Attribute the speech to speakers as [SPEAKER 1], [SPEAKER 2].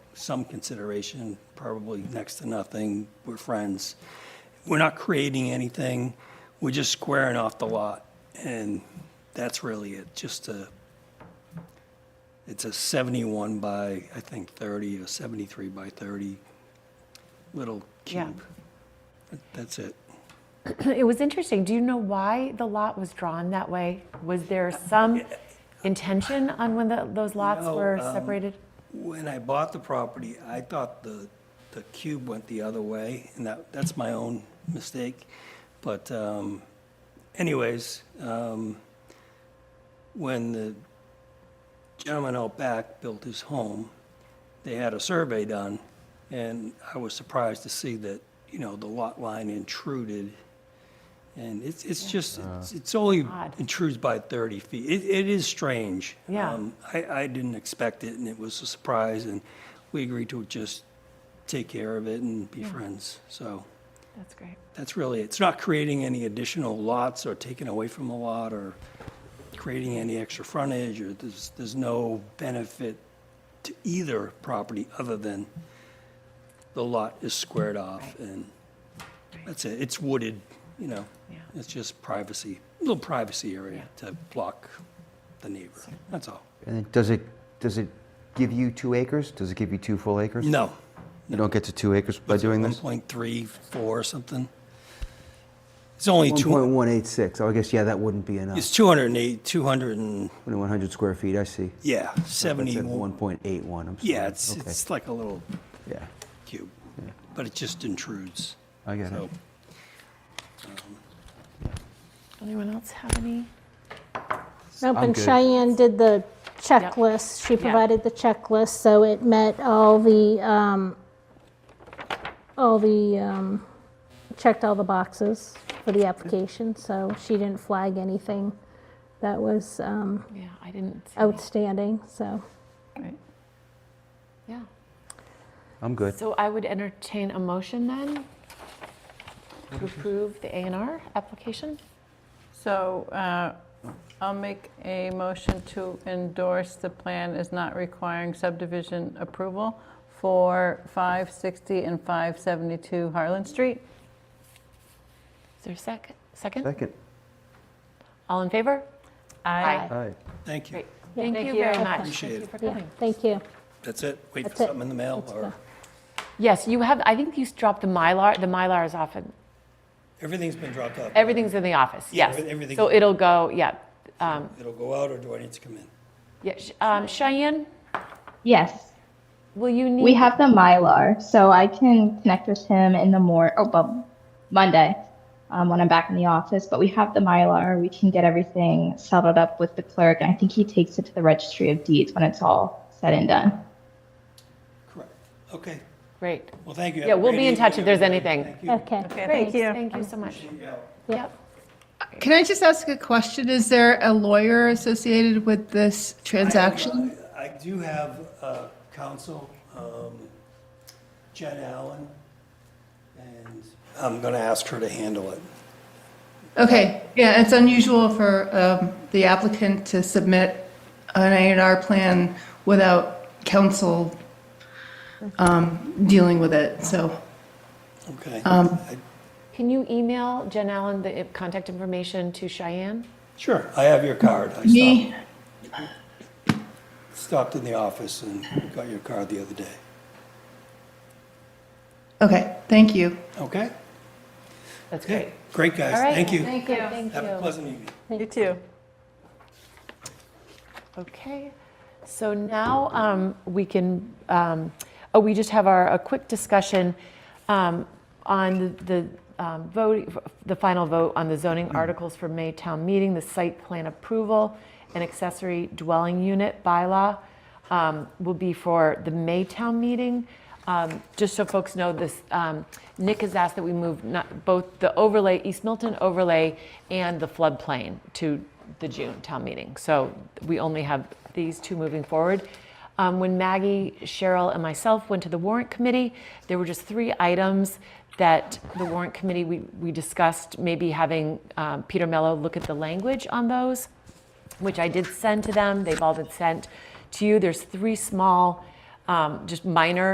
[SPEAKER 1] some consideration, probably next to nothing. We're friends. We're not creating anything. We're just squaring off the lot. And that's really it, just a, it's a 71 by, I think, 30 or 73 by 30 little
[SPEAKER 2] Yeah.
[SPEAKER 1] cube. That's it.
[SPEAKER 2] It was interesting. Do you know why the lot was drawn that way? Was there some intention on when the, those lots
[SPEAKER 1] No,
[SPEAKER 2] were
[SPEAKER 1] um,
[SPEAKER 2] separated?
[SPEAKER 1] When I bought the property, I thought the, the cube went the other way, and that, that's my own mistake. But um, anyways, um, when the gentleman out back built his home, they had a survey done, and I was surprised to see that, you know, the lot line intruded. And it's, it's just, it's- it's only
[SPEAKER 2] Uh. Odd.
[SPEAKER 1] intrudes by 30 feet. It, it is strange.
[SPEAKER 2] Yeah.
[SPEAKER 1] Um, I, I didn't expect it, and it was a surprise, and we agreed to just take care of it and be friends. So
[SPEAKER 2] That's great.
[SPEAKER 1] that's really, it's not creating any additional lots or taking away from a lot or creating any extra frontage, or there's, there's no benefit to either property other than the lot is squared off, and that's it. It's wooded, you know?
[SPEAKER 2] Yeah.
[SPEAKER 1] It's just privacy, little privacy area
[SPEAKER 2] Yeah.
[SPEAKER 1] to block the neighbor, that's all.
[SPEAKER 3] And then does it, does it give you two acres? Does it give you two full acres?
[SPEAKER 1] No.
[SPEAKER 3] You don't get to two acres by doing this?
[SPEAKER 1] 1.34 or something. It's only two,
[SPEAKER 3] 1.186, oh, I guess, yeah, that wouldn't be enough.
[SPEAKER 1] it's 208, 200 and,
[SPEAKER 3] 2,100 square feet, I see.
[SPEAKER 1] yeah,
[SPEAKER 3] That's at
[SPEAKER 1] 71.
[SPEAKER 3] 1.81, I'm sorry.
[SPEAKER 1] Yeah, it's,
[SPEAKER 3] Okay,
[SPEAKER 1] it's like a little
[SPEAKER 3] Yeah,
[SPEAKER 1] cube, but it just intrudes.
[SPEAKER 3] I get
[SPEAKER 1] So
[SPEAKER 3] it.
[SPEAKER 2] Anyone else have any?
[SPEAKER 4] No,
[SPEAKER 3] I'm
[SPEAKER 4] but
[SPEAKER 3] good.
[SPEAKER 4] Cheyenne did the checklist, she
[SPEAKER 2] Yeah.
[SPEAKER 4] provided the checklist, so it met all the, um, all the, um, checked all the boxes for the application, so she didn't flag anything that was um,
[SPEAKER 2] Yeah, I didn't. see any.
[SPEAKER 4] outstanding, so.
[SPEAKER 2] Right. Yeah.
[SPEAKER 3] I'm good.
[SPEAKER 2] So I would entertain a motion then to approve the A and R application.
[SPEAKER 5] So uh, I'll make a motion to endorse the plan as not requiring subdivision approval for 560 and 572 Harlan Street.
[SPEAKER 2] Is there a sec- second?
[SPEAKER 3] Second,
[SPEAKER 2] All in favor? Aye.
[SPEAKER 3] all right.
[SPEAKER 1] Thank you.
[SPEAKER 2] Great. Thank
[SPEAKER 4] thank
[SPEAKER 2] you
[SPEAKER 4] you.
[SPEAKER 2] very
[SPEAKER 4] Okay.
[SPEAKER 2] much.
[SPEAKER 1] Appreciate
[SPEAKER 2] Thank you
[SPEAKER 1] it.
[SPEAKER 2] for
[SPEAKER 4] Yeah,
[SPEAKER 2] coming.
[SPEAKER 4] thank you.
[SPEAKER 1] That's it. Wait for
[SPEAKER 4] That's it.
[SPEAKER 1] something in the mail
[SPEAKER 4] That's
[SPEAKER 1] or,
[SPEAKER 4] fine.
[SPEAKER 2] Yes, you have, I think you s- dropped the Mylar, the Mylar is often,
[SPEAKER 1] everything's been dropped off.
[SPEAKER 2] everything's in the office,
[SPEAKER 1] Yeah,
[SPEAKER 2] yes.
[SPEAKER 1] everything-
[SPEAKER 2] So it'll go, yeah. Um,
[SPEAKER 1] It'll go out or do I need to come in?
[SPEAKER 2] yeah, Sh- um, Cheyenne,
[SPEAKER 6] Yes,
[SPEAKER 2] will you need?
[SPEAKER 6] we have the Mylar, so I can connect with him in the more oh, well, Monday um, when I'm back in the office. But we have the Mylar; we can get everything settled up with the clerk, and I think he takes it to the Registry of Deeds when it's all said and done.
[SPEAKER 1] Correct. Okay.
[SPEAKER 2] Great.
[SPEAKER 1] Well, thank you.
[SPEAKER 2] Yeah, we'll be in touch if there's anything.
[SPEAKER 4] Okay.
[SPEAKER 2] Thank you. Thank you so much. Yep.
[SPEAKER 7] Can I just ask a question? Is there a lawyer associated with this transaction?
[SPEAKER 1] I do have uh, counsel, um, Jen Allen, and I'm going to ask her to handle it.
[SPEAKER 7] Okay, yeah, it's unusual for um, the applicant to submit an A and R plan without counsel um, dealing with it, so.
[SPEAKER 1] Okay. I-
[SPEAKER 2] Can you email Jen Allen the i- contact information to Cheyenne?
[SPEAKER 1] Sure. I have your card. I stopped,
[SPEAKER 7] Me,
[SPEAKER 1] stopped in the office and got your card the other day.
[SPEAKER 7] okay, thank you.
[SPEAKER 1] Okay?
[SPEAKER 2] That's great.
[SPEAKER 1] Okay. Great, guys.
[SPEAKER 2] All right.
[SPEAKER 1] Thank you.
[SPEAKER 2] Thank you. Thank
[SPEAKER 1] Have a
[SPEAKER 2] you.
[SPEAKER 1] pleasant evening.
[SPEAKER 5] You too.
[SPEAKER 2] Okay, so now um, we can, um, oh, we just have our, a quick discussion um, on the um, vote, the final vote on the zoning articles for May town meeting, the site plan approval and accessory dwelling unit bylaw um, will be for the May town meeting. Um, Just so folks know, this, um, Nick has asked that we move not, both the overlay, East Milton overlay and the floodplain to the June town meeting. So we only have these two moving forward. Um, When Maggie, Cheryl, and myself went to the warrant committee, there were just three items that the warrant committee, we, we discussed maybe having um, Peter Mello look at the language on those which I did send to them. They've all been sent to you. There's three small, um, just minor